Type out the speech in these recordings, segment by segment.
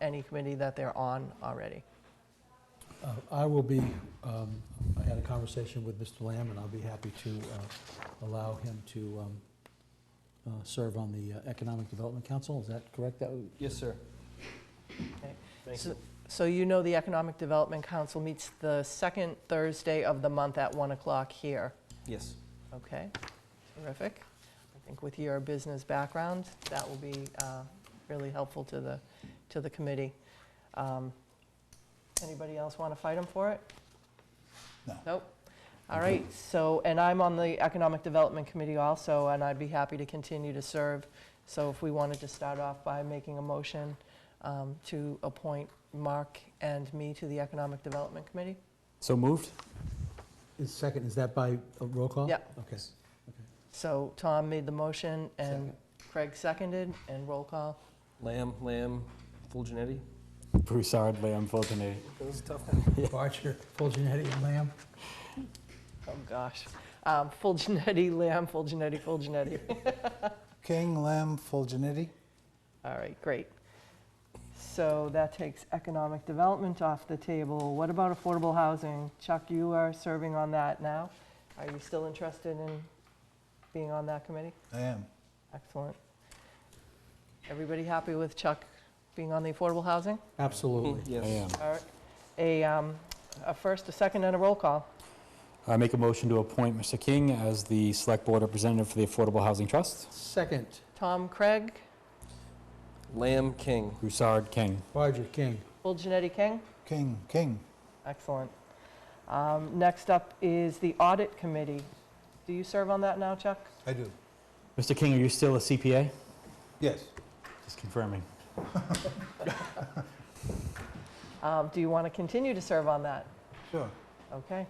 any committee that they're on already. Uh, I will be, um, I had a conversation with Mr. Lamb, and I'll be happy to uh, allow him to um, uh, serve on the uh, Economic Development Council, is that correct? That would- Yes, sir. So- So you know the Economic Development Council meets the second Thursday of the month at 1 o'clock here. Yes. Okay, terrific. I think with your business background, that will be uh, really helpful to the, to the committee. Um, Anybody else want to fight him for it? No. Nope. All right, so, and I'm on the Economic Development Committee also, and I'd be happy to continue to serve. So if we wanted to start off by making a motion um, to appoint Mark and me to the Economic Development Committee? So moved? Is second, is that by uh, roll call? Yeah. Okay. So Tom made the motion and Second. Craig seconded, and roll call. Lamb, Lamb, Fulgenetti? Broussard, Lamb, Fulton, Barger, Fulgenetti, and Lamb? Oh, gosh. Um, full Genetti, Lamb, full Genetti, full Genetti. King, Lamb, Fulgenetti. All right, great. So that takes economic development off the table. What about affordable housing? Chuck, you are serving on that now. Are you still interested in being on that committee? I am. Excellent. Everybody happy with Chuck being on the affordable housing? Absolutely. I am. Yes. All right. A, um, a first, a second, and a roll call. I make a motion to appoint Mr. King as the Select Board Representative for the Affordable Housing Trust. Second, Tom, Craig, Lamb, King. Broussard, King. Barger, King. full Genetti, King? King, King. Excellent. Um, Next up is the Audit Committee. Do you serve on that now, Chuck? I do. Mr. King, are you still a CPA? Yes. Just confirming. Um, Do you want to continue to serve on that? Sure. Okay.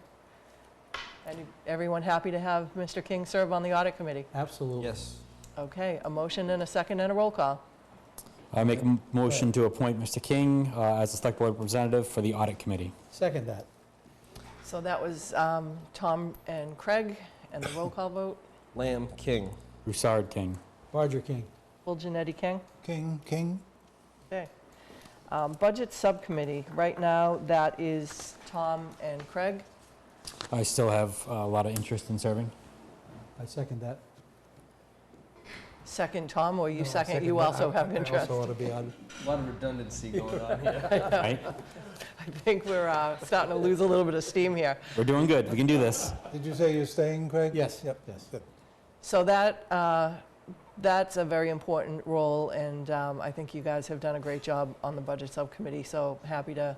Any- Everyone happy to have Mr. King serve on the Audit Committee? Absolutely. Yes. Okay, a motion and a second and a roll call. I make a m- motion to appoint Mr. King uh, as the Select Board Representative for the Audit Committee. Second that. So that was um, Tom and Craig, and the roll call vote. Lamb, King. Broussard, King. Barger, King. Full Janetti King? King, King. Okay. Um, Budget Subcommittee, right now, that is Tom and Craig. I still have uh, a lot of interest in serving. I second that. Second, Tom, or you No, I second, you that. also I- have interest. I also ought to be on. A lot of redundancy going on here. Right? I think we're uh, starting to lose a little bit of steam here. We're doing good. We can do this. Did you say you're staying, Craig? Yes. Yep. Yes. Good. So that, uh, that's a very important role, and um, I think you guys have done a great job on the Budget Subcommittee, so happy to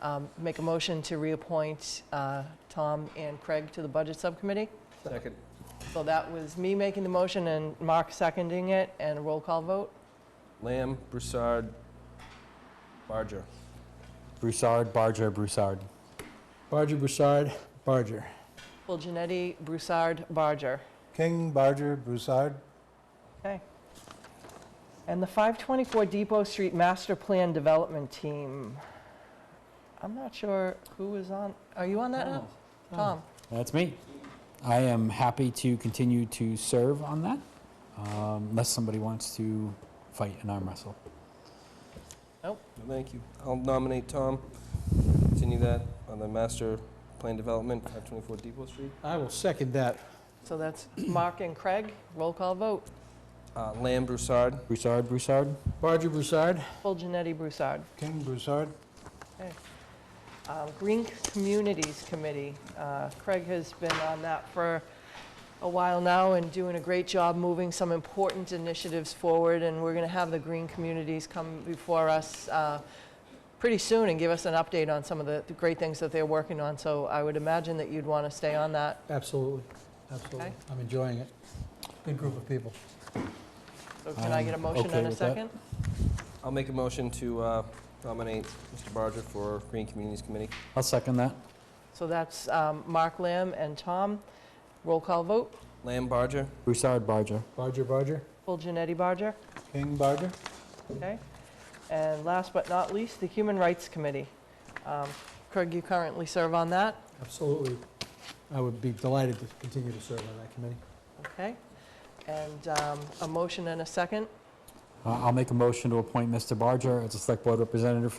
um, make a motion to reappoint uh, Tom and Craig to the Budget Subcommittee. Second. So that was me making the motion and Mark seconding it, and a roll call vote. Lamb, Broussard, Barger. Broussard, Barger, Broussard. Barger, Broussard, Barger. Full Janetti, Broussard, Barger. King, Barger, Broussard. Okay. And the 524 Depot Street Master Plan Development Team, I'm not sure who is on, are you on that now? Tom? That's me. I am happy to continue to serve on that, um, unless somebody wants to fight an arm wrestle. Thank you. I'll nominate Tom. Continue that on the master plan development, 524 Depot Street. I will second that. So that's Mark and Craig, roll call vote. Uh, Lamb, Broussard. Broussard, Broussard. Barger, Broussard. Full Janetti Broussard. King, Broussard. Uh, Green Communities Committee, uh, Craig has been on that for a while now and doing a great job moving some important initiatives forward, and we're going to have the green communities come before us uh, pretty soon and give us an update on some of the the great things that they're working on, so I would imagine that you'd want to stay on that. Absolutely, absolutely. Okay. I'm enjoying it. Good group of people. So can I get a I'm motion okay and a with that. second? I'll make a motion to uh, nominate Mr. Barger for Green Communities Committee. I'll second that. So that's um, Mark Lamb and Tom, roll call vote, Lamb, Barger. Broussard, Barger. Barger, Barger. full Janetti Barger. King, Barger. Okay. And last but not least, the Human Rights Committee. Um, Craig, you currently serve on that, Absolutely. I would be delighted to continue to serve on that committee. okay? And um, a motion and a second. Uh, I'll make a motion to appoint Mr. Barger as a Select Board Representative for